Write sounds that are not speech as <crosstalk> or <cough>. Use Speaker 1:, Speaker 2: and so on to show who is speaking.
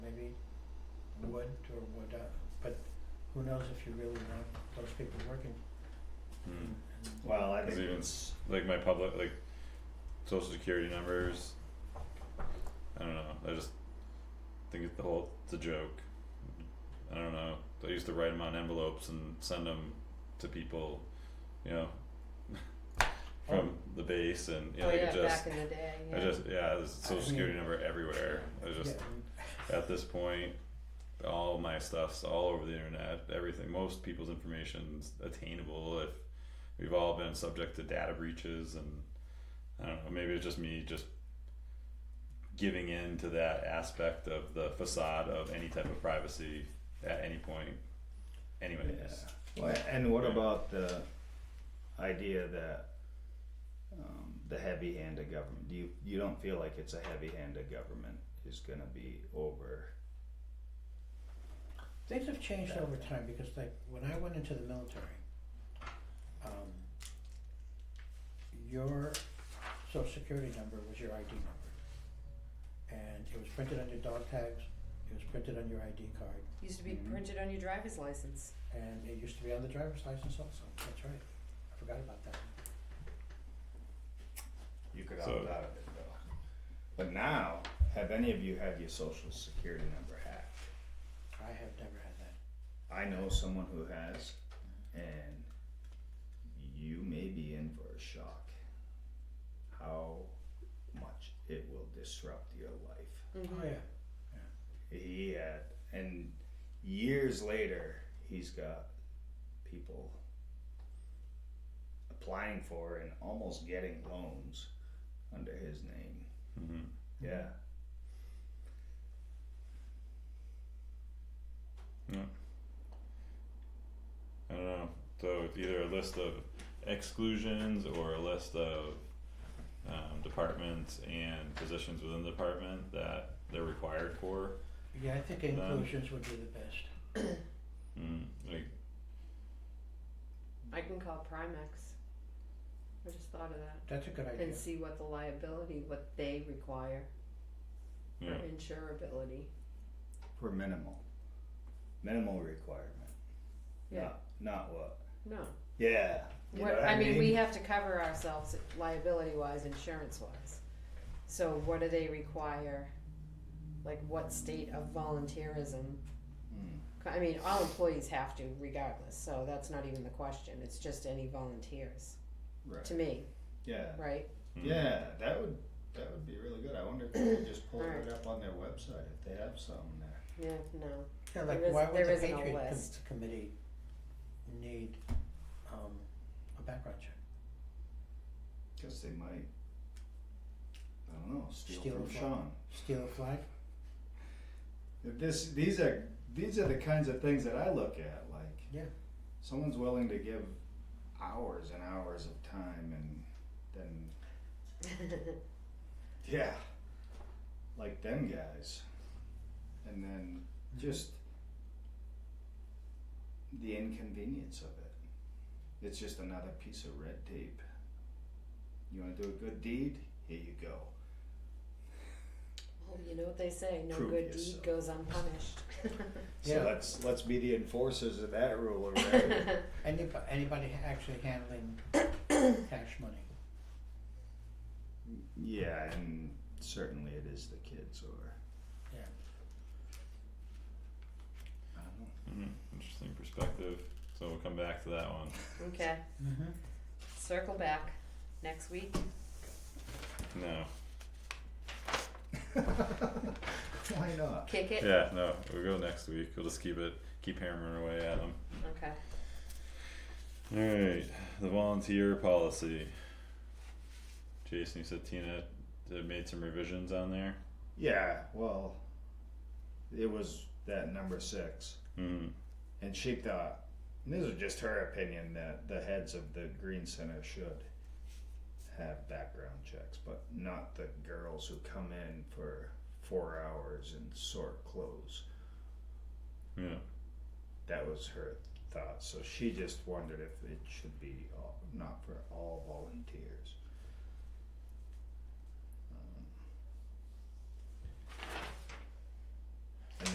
Speaker 1: would or would, uh, but who knows if you really want those people working
Speaker 2: Mm.
Speaker 1: and and-
Speaker 3: Well, I
Speaker 2: Cause
Speaker 3: think,
Speaker 2: even s- like my public, like social security numbers, I don't know, I just think it's the whole, it's a joke. I don't know, I used to write them on envelopes and send them to people, you know, from the base and, you know,
Speaker 4: Oh,
Speaker 2: like
Speaker 4: yeah,
Speaker 2: it just,
Speaker 4: back in the day, yeah.
Speaker 2: I just, yeah, there's a
Speaker 1: I
Speaker 2: social security
Speaker 1: mean-
Speaker 2: number everywhere, I was just,
Speaker 1: oh, yeah, and-
Speaker 2: at this point, all my stuff's all over the internet. Everything, most people's information's attainable. If we've all been subject to data breaches, and I don't know, maybe it's just me just giving in to that aspect of the facade of any type of privacy at any point. Anyways,
Speaker 3: well, and what
Speaker 2: Yeah.
Speaker 3: about the idea that um, the heavy hand of government, do you, you don't feel like it's a heavy hand of government is gonna be over?
Speaker 1: Things have changed
Speaker 3: Yeah.
Speaker 1: over time because like when I went into the military, um, your social security number was your ID number. And it was printed on your dog tags, it was printed on your ID card,
Speaker 4: Used to be
Speaker 3: Mhm.
Speaker 4: printed on your driver's license.
Speaker 1: and it used to be on the driver's license also, that's right, I forgot about that.
Speaker 3: You could
Speaker 2: So-
Speaker 3: opt out of it though. But now, have any of you had your social security number hacked?
Speaker 1: I have never had that.
Speaker 3: I know someone who has, and you may be in for a shock how much it will disrupt your life.
Speaker 1: Oh, yeah,
Speaker 3: He had, and years later, he's got people applying for and almost getting loans under his name.
Speaker 2: hmm
Speaker 3: Yeah.
Speaker 2: I don't know. So it's either a list of exclusions or a list of um, departments and positions within the department that they're required for.
Speaker 1: yeah, I think inclusions would be the best.
Speaker 2: Mm, like,
Speaker 4: I can call Primex. I just thought of that.
Speaker 1: That's a good idea.
Speaker 4: And see what the liability, what they require
Speaker 2: you
Speaker 4: for
Speaker 2: know,
Speaker 4: insurability.
Speaker 3: For minimal. Minimal requirement.
Speaker 4: Yeah.
Speaker 3: Not, not what?
Speaker 4: No.
Speaker 3: Yeah. You know
Speaker 4: What,
Speaker 3: what
Speaker 4: I mean, we have to cover ourselves liability wise, insurance wise. So what do they require? Like what state of volunteerism?
Speaker 3: Mm.
Speaker 4: I mean, all employees have to regardless, so that's not even the question. It's just any volunteers,
Speaker 3: Right.
Speaker 4: to me,
Speaker 3: Yeah.
Speaker 4: right?
Speaker 2: mm.
Speaker 3: Yeah, that would that would be really good. I wonder if they could just pull
Speaker 4: Alright.
Speaker 3: it up on their website if they have something there.
Speaker 4: Yeah, no. <laughs>
Speaker 1: Yeah, like
Speaker 4: There is-
Speaker 1: why would
Speaker 4: there
Speaker 1: the
Speaker 4: isn't a
Speaker 1: Patriot Com-
Speaker 4: list.
Speaker 1: Committee need um a background check?
Speaker 3: Guess they might. I don't know. Steal,
Speaker 1: Steal
Speaker 3: from
Speaker 1: a flag.
Speaker 3: Sean.
Speaker 1: Steal a flag?
Speaker 3: If This these are these are the kinds of things that I look at. Like
Speaker 1: Yeah.
Speaker 3: someone's willing to give hours and hours of time and then yeah, like them guys, and then
Speaker 1: Mm-hmm.
Speaker 3: just the inconvenience of it. It's just another piece of red tape. You want to do a good deed? Here you go.
Speaker 4: Well, you know what they say, no
Speaker 3: Prove
Speaker 4: good
Speaker 3: yourself.
Speaker 4: deed goes unpunished.
Speaker 3: <laughs>
Speaker 1: Yeah.
Speaker 3: So let's let's be the enforcers of that rule
Speaker 1: <laughs>
Speaker 3: already.
Speaker 1: Anybody, anybody actually handling cash money?
Speaker 3: yeah, and certainly it is the kids or
Speaker 1: Yeah.
Speaker 3: I don't know.
Speaker 2: Mhm. Interesting perspective. So we'll come back to that one.
Speaker 4: <laughs> Okay,
Speaker 1: Mm-hmm.
Speaker 4: circle back next week.
Speaker 2: No.
Speaker 3: Why not?
Speaker 4: Kick it.
Speaker 2: Yeah, no. We'll go next week. We'll just keep it, keep hammering away at them.
Speaker 4: Okay.
Speaker 2: All right, the volunteer policy. Jason, you said Tina uh, made some revisions on there.
Speaker 3: Yeah, well, it was that number six.
Speaker 2: Mm.
Speaker 3: And she thought, and this is just her opinion, that the heads of the Green Center should have background checks, but not the girls who come in for four hours and sort clothes.
Speaker 2: Yeah.
Speaker 3: That was her thought. So she just wondered if it should be all, not for all volunteers. Um,